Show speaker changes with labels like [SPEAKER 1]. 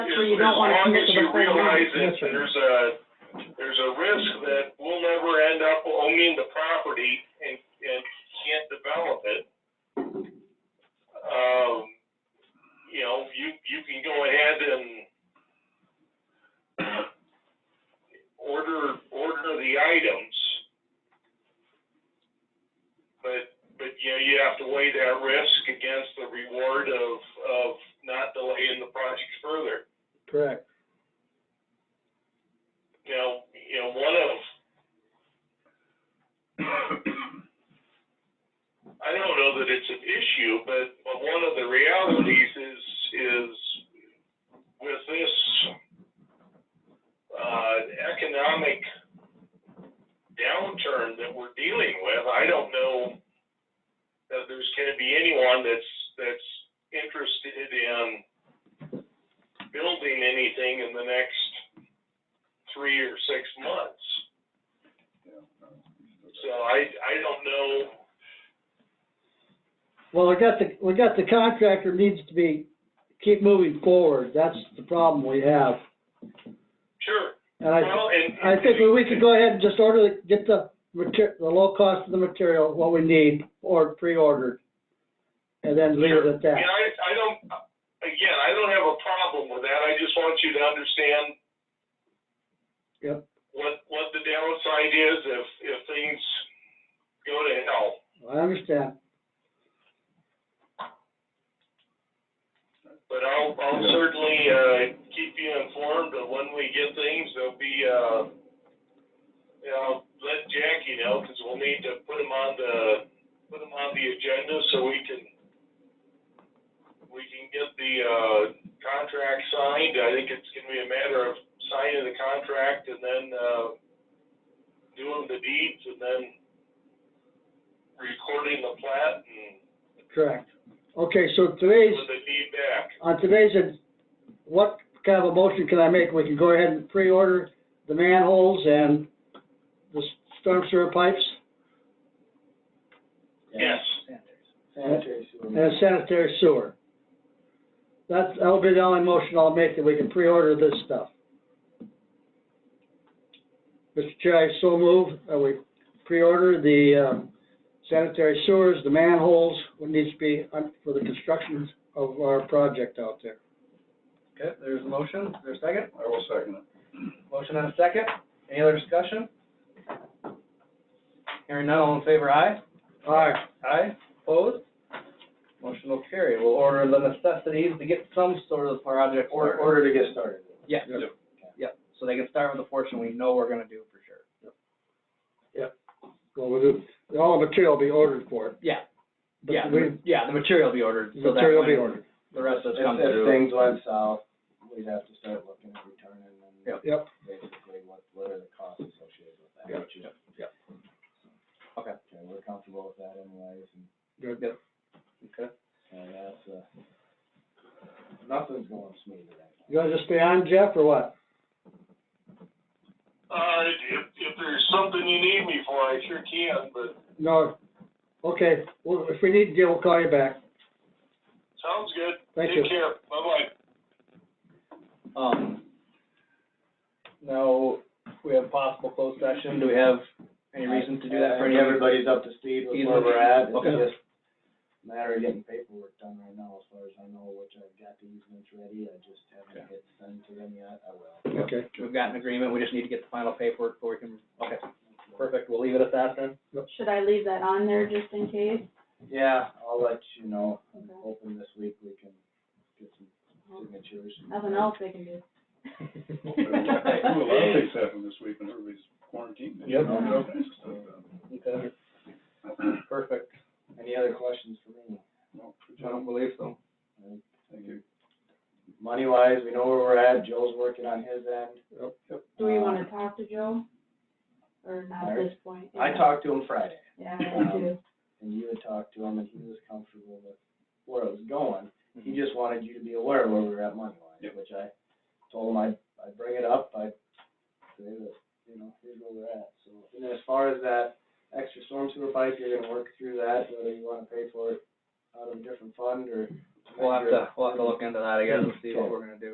[SPEAKER 1] sure you don't wanna end up with a
[SPEAKER 2] As long as you
[SPEAKER 1] full
[SPEAKER 2] realize
[SPEAKER 1] house.
[SPEAKER 2] that
[SPEAKER 3] Yes, sir.
[SPEAKER 2] there's a, there's a risk that we'll never end up owning the property and, and can't develop it. Um, you know, you, you can go ahead and order, order the items. But, but, you know, you have to weigh that risk against the reward of, of not delaying the project further.
[SPEAKER 3] Correct.
[SPEAKER 2] you know, you know, one of, I don't know that it's an issue, but, but one of the realities is, is with this, uh, economic downturn that we're dealing with, I don't know that there's gonna be anyone that's, that's interested in building anything in the next three or six months. So I, I don't know,
[SPEAKER 3] Well, we got the, we got the contractor needs to be, keep moving forward. That's the problem we have.
[SPEAKER 2] sure,
[SPEAKER 3] And I,
[SPEAKER 2] well, and.
[SPEAKER 3] I think we could go ahead and just order, the- get the mater, the low cost of the material, what we need, or pre-ordered. And then leave it at
[SPEAKER 2] Sure.
[SPEAKER 3] that.
[SPEAKER 2] And I, I don't, again, I don't have a problem with that, I just want you to understand.
[SPEAKER 3] Yep.
[SPEAKER 2] What, what the downside is if, if things go to hell.
[SPEAKER 3] I understand.
[SPEAKER 2] But I'll, I'll certainly, uh, keep you informed of when we get things, there'll be, uh, you know, let Jackie know, cause we'll need to put them on the, put them on the agenda so we can, we can get the, uh, contract signed, I think it's gonna be a matter of signing the contract and then, uh, doing the deeds and then recording the plat and
[SPEAKER 3] Correct. Okay, so today's,
[SPEAKER 2] with the deed back.
[SPEAKER 3] on today's, uh, what kind of a motion can I make? We can go ahead and pre-order the manholes and the storm sewer pipes
[SPEAKER 2] Yes.
[SPEAKER 3] and and sanitary sewer. That, that'll be the only motion I'll make, that we can pre-order this stuff. Mr. Chair, I so move, that we pre-order the uh, sanitary sewers, the manholes, what needs to be on- for the construction of our project out there.
[SPEAKER 4] Okay, there's a motion, Is there a second,
[SPEAKER 5] I will second it.
[SPEAKER 4] motion and a second, any other discussion? Hearing none, all in favor, aye?
[SPEAKER 3] All right,
[SPEAKER 4] Aye, opposed? Motion will carry, we'll order the necessities to get some sort of project
[SPEAKER 5] Or-
[SPEAKER 4] order.
[SPEAKER 5] order to get started.
[SPEAKER 4] Yeah,
[SPEAKER 5] Yep.
[SPEAKER 4] yep, so they can start with the portion we know we're gonna do for sure.
[SPEAKER 3] well, we'll do, all the material will be ordered for it.
[SPEAKER 4] Yeah,
[SPEAKER 3] But
[SPEAKER 4] yeah,
[SPEAKER 3] we-
[SPEAKER 4] the- yeah, the material will be ordered, so that
[SPEAKER 3] Material will be
[SPEAKER 4] when
[SPEAKER 3] ordered,
[SPEAKER 4] the rest of
[SPEAKER 5] If,
[SPEAKER 4] it comes
[SPEAKER 5] if
[SPEAKER 4] through.
[SPEAKER 5] things went south, we'd have to start looking at returning and
[SPEAKER 4] Yep.
[SPEAKER 3] Yep.
[SPEAKER 5] basically what, what are the costs associated with that?
[SPEAKER 3] Yep.
[SPEAKER 5] which is-
[SPEAKER 3] Yep.
[SPEAKER 4] Okay.
[SPEAKER 5] Okay, we're comfortable with that anyways, and,
[SPEAKER 3] good.
[SPEAKER 4] Okay.
[SPEAKER 5] and that's, uh, nothing's going smooth at that.
[SPEAKER 3] You wanna just stay on, Jeff, or what?
[SPEAKER 2] Uh, if, if there's something you need me for, I sure can, but
[SPEAKER 3] No, okay, well, if we need to deal, we'll call you back.
[SPEAKER 2] sounds good.
[SPEAKER 3] Thank you.
[SPEAKER 2] Take care. Bye-bye.
[SPEAKER 4] Um, now, we have possible closed session, do we have any reason to do that for
[SPEAKER 5] I
[SPEAKER 4] any
[SPEAKER 5] think
[SPEAKER 4] of everybody?
[SPEAKER 5] Everybody's up to speed with
[SPEAKER 4] He's
[SPEAKER 5] where
[SPEAKER 4] looking-
[SPEAKER 5] we're at, it's
[SPEAKER 4] okay.
[SPEAKER 5] just a matter of getting paperwork done right now, as far as I know, which I've got the easements ready, I just haven't hit send to them yet, I will.
[SPEAKER 3] Okay,
[SPEAKER 4] We've got an agreement, we just need to get the final paperwork before we can, okay, perfect, we'll leave it at that then.
[SPEAKER 1] Should I leave that on there just in case?
[SPEAKER 5] Yeah, I'll let you know. I'm
[SPEAKER 1] Okay.
[SPEAKER 5] hoping this week we can get some signatures.
[SPEAKER 1] Nothing else they can do.
[SPEAKER 6] Well, a lot of things happened this week when everybody's quarantined.
[SPEAKER 4] Yep.
[SPEAKER 6] All kinds of stuff happened.
[SPEAKER 4] Okay, perfect,
[SPEAKER 5] Any other questions for me?
[SPEAKER 6] Well, good
[SPEAKER 4] I don't
[SPEAKER 6] job.
[SPEAKER 4] believe
[SPEAKER 5] Mm-hmm.
[SPEAKER 4] so.
[SPEAKER 6] Thank you.
[SPEAKER 5] Money wise, we know where we're at, Joe's working on his end.
[SPEAKER 1] Do we wanna talk to Joe? Or not at this point?
[SPEAKER 5] I talked to him Friday,
[SPEAKER 1] Yeah, I do.
[SPEAKER 5] and you had talked to him, and he was comfortable with where it was going.
[SPEAKER 4] Mm-hmm.
[SPEAKER 5] He just wanted you to be aware of where we were at money wise,
[SPEAKER 6] Yep.
[SPEAKER 5] which I told him I'd, I'd bring it up, I'd say that, you know, here's where we're at, so. And then as far as that extra storm sewer pipe, you're gonna work through that, whether you wanna pay for it out of a different fund or.
[SPEAKER 4] We'll have to, we'll have to look into that, I guess, and see what we're gonna do.